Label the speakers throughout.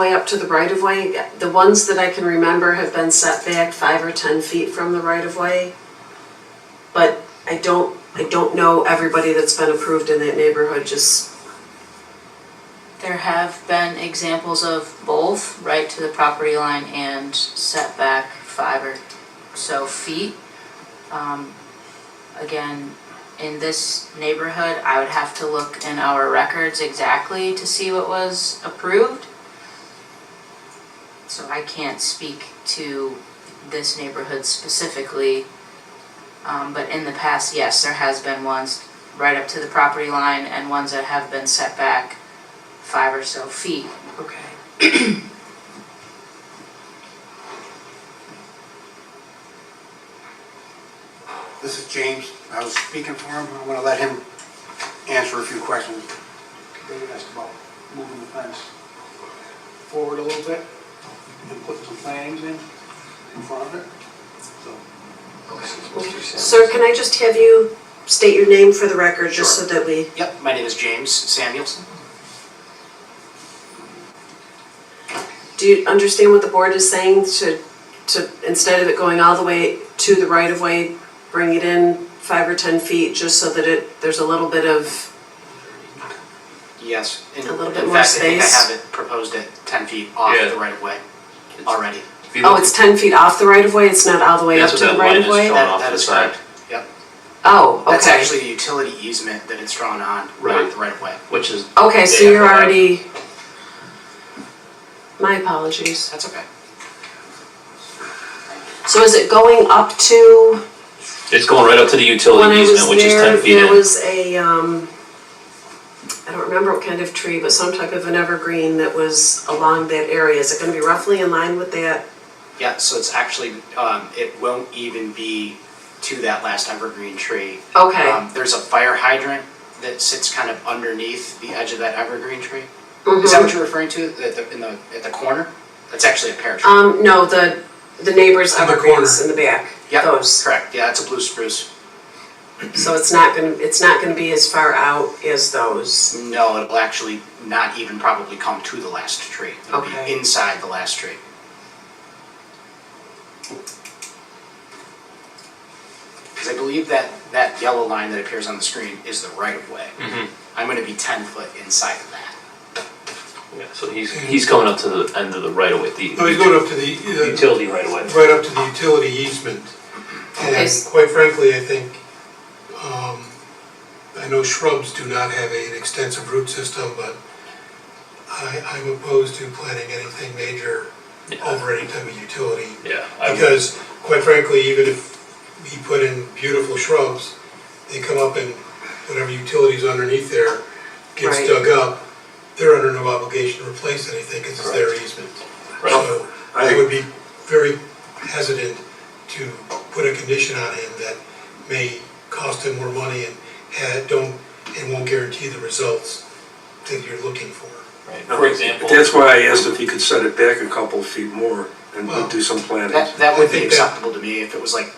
Speaker 1: Way up to the right of way, the ones that I can remember have been set back five or ten feet from the right of way. But I don't, I don't know everybody that's been approved in that neighborhood, just,
Speaker 2: There have been examples of both, right to the property line and setback five or so feet. Um, Again, in this neighborhood, I would have to look in our records exactly to see what was approved. So I can't speak to this neighborhood specifically. Um, but in the past, yes, there has been ones right up to the property line and ones that have been set back five or so feet.
Speaker 1: okay.
Speaker 3: This is James. I was speaking for him. I want to let him answer a few questions. David asked about moving the fence forward a little bit and putting some plantings in, in front of it. So
Speaker 1: Sir, can I just have you state your name for the record, just so that we,
Speaker 4: Yep, my name is James Samuelson.
Speaker 1: do you understand what the board is saying to, to, instead of it going all the way to the right of way, bring it in five or ten feet, just so that it, there's a little bit of,
Speaker 4: Yes. in-
Speaker 1: A little bit
Speaker 4: in
Speaker 1: more
Speaker 4: fact, I think I
Speaker 1: space.
Speaker 4: have it proposed at 10 feet off
Speaker 5: Yeah.
Speaker 4: the right of way already.
Speaker 5: If you
Speaker 1: oh,
Speaker 5: look-
Speaker 1: it's ten feet off the right of way, it's not all the way up
Speaker 5: That's
Speaker 1: to
Speaker 5: what
Speaker 1: the
Speaker 5: that
Speaker 1: right
Speaker 5: line
Speaker 1: of
Speaker 5: is
Speaker 1: way?
Speaker 5: showing.
Speaker 4: That-
Speaker 5: off
Speaker 4: that
Speaker 5: the
Speaker 4: is
Speaker 5: side.
Speaker 4: correct. Yep.
Speaker 1: Oh, okay.
Speaker 4: That's actually the utility easement that it's drawn on,
Speaker 5: Right.
Speaker 4: not the right of way.
Speaker 5: Which is,
Speaker 1: Okay, so
Speaker 5: Yeah,
Speaker 1: you're
Speaker 5: but I-
Speaker 1: already, my apologies.
Speaker 4: That's okay.
Speaker 1: So is it going up to,
Speaker 5: it's going right up to the
Speaker 1: when
Speaker 5: utility
Speaker 1: I was
Speaker 5: easement, which is ten
Speaker 1: there,
Speaker 5: feet
Speaker 1: there
Speaker 5: in.
Speaker 1: was a, um, I don't remember what kind of tree, but some type of an evergreen that was along that area. Is it gonna be roughly in line with that?
Speaker 4: Yeah, so it's actually, um, it won't even be to that last evergreen tree.
Speaker 1: Okay.
Speaker 4: Um, There's a fire hydrant that sits kind of underneath the edge of that evergreen tree. Is that
Speaker 1: Mhm.
Speaker 4: what you're referring to, at the, in the, at the corner? That's actually a pear tree.
Speaker 1: Um, no, the, the neighbor's
Speaker 4: On the
Speaker 1: evergreens in the back,
Speaker 4: Yep,
Speaker 1: those.
Speaker 4: Correct, yeah, it's a blue spruce.
Speaker 1: So it's not gonna, it's not gonna be as far out as those.
Speaker 4: No, it'll actually not even probably come to the last tree. It'll
Speaker 1: Okay.
Speaker 4: be inside the last tree. Because I believe that, that yellow line that appears on the screen is the right of way.
Speaker 5: Mhm.
Speaker 6: Mm-hmm.
Speaker 4: I'm gonna be ten foot inside of that.
Speaker 5: Yeah, so he's, he's coming up to the end of the right of way, the
Speaker 6: No, he's going up to the, the-
Speaker 5: utility right of way.
Speaker 6: right up to the utility easement.
Speaker 1: Okay.
Speaker 6: And quite frankly, I think, um, I know shrubs do not have an extensive root system, but I, I'm opposed to planting anything major
Speaker 5: Yeah,
Speaker 6: over any type of utility.
Speaker 5: yeah, I would,
Speaker 6: Because quite frankly, even if we put in beautiful shrubs, they come up and whatever utilities underneath there
Speaker 1: Right.
Speaker 6: gets dug up, they're under no obligation to replace anything because it's their easement.
Speaker 5: Right.
Speaker 6: So I
Speaker 3: I-
Speaker 6: would be very hesitant to put a condition on him that may cost him more money and had, don't, and won't guarantee the results that you're looking for.
Speaker 5: right, for example,
Speaker 7: That's why I asked if he could set it back a couple feet more and
Speaker 6: Well,
Speaker 7: do some
Speaker 4: That,
Speaker 7: planting.
Speaker 4: that would be
Speaker 6: I think that-
Speaker 4: acceptable to me if it was like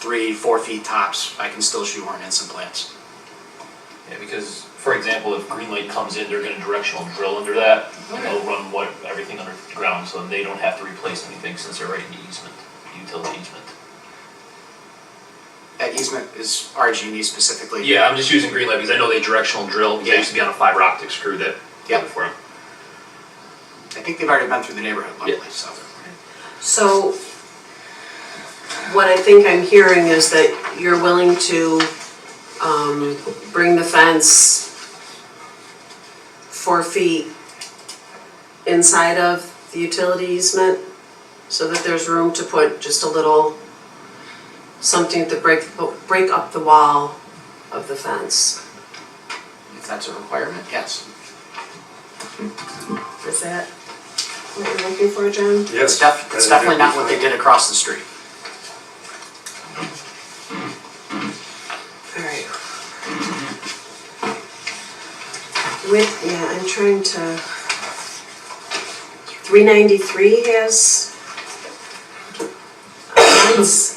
Speaker 4: three, four feet tops, I can still shoehorn in some plants.
Speaker 5: yeah, because, for example, if green light comes in, they're gonna directional drill under that. And they'll run what, everything underground, so they don't have to replace anything since they're right in the easement, utility easement.
Speaker 4: That easement is RG&E specifically.
Speaker 5: Yeah, I'm just using green light because I know they directional drill, because I used to be on a fiber optic screw that.
Speaker 4: Yep.
Speaker 5: For 'em.
Speaker 4: I think they've already been through the neighborhood luckily, so.
Speaker 1: So what I think I'm hearing is that you're willing to um, bring the fence four feet inside of the utility easement so that there's room to put just a little something to break, break up the wall of the fence.
Speaker 4: If that's a requirement, yes.
Speaker 1: Is that what you're looking for, John?
Speaker 4: It's def, it's definitely not what they did across the street.
Speaker 1: All right. With, yeah, I'm trying to, three ninety-three has uh, Let's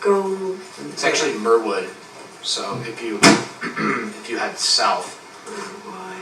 Speaker 1: go,
Speaker 4: It's actually Merwood, so if you, if you head south,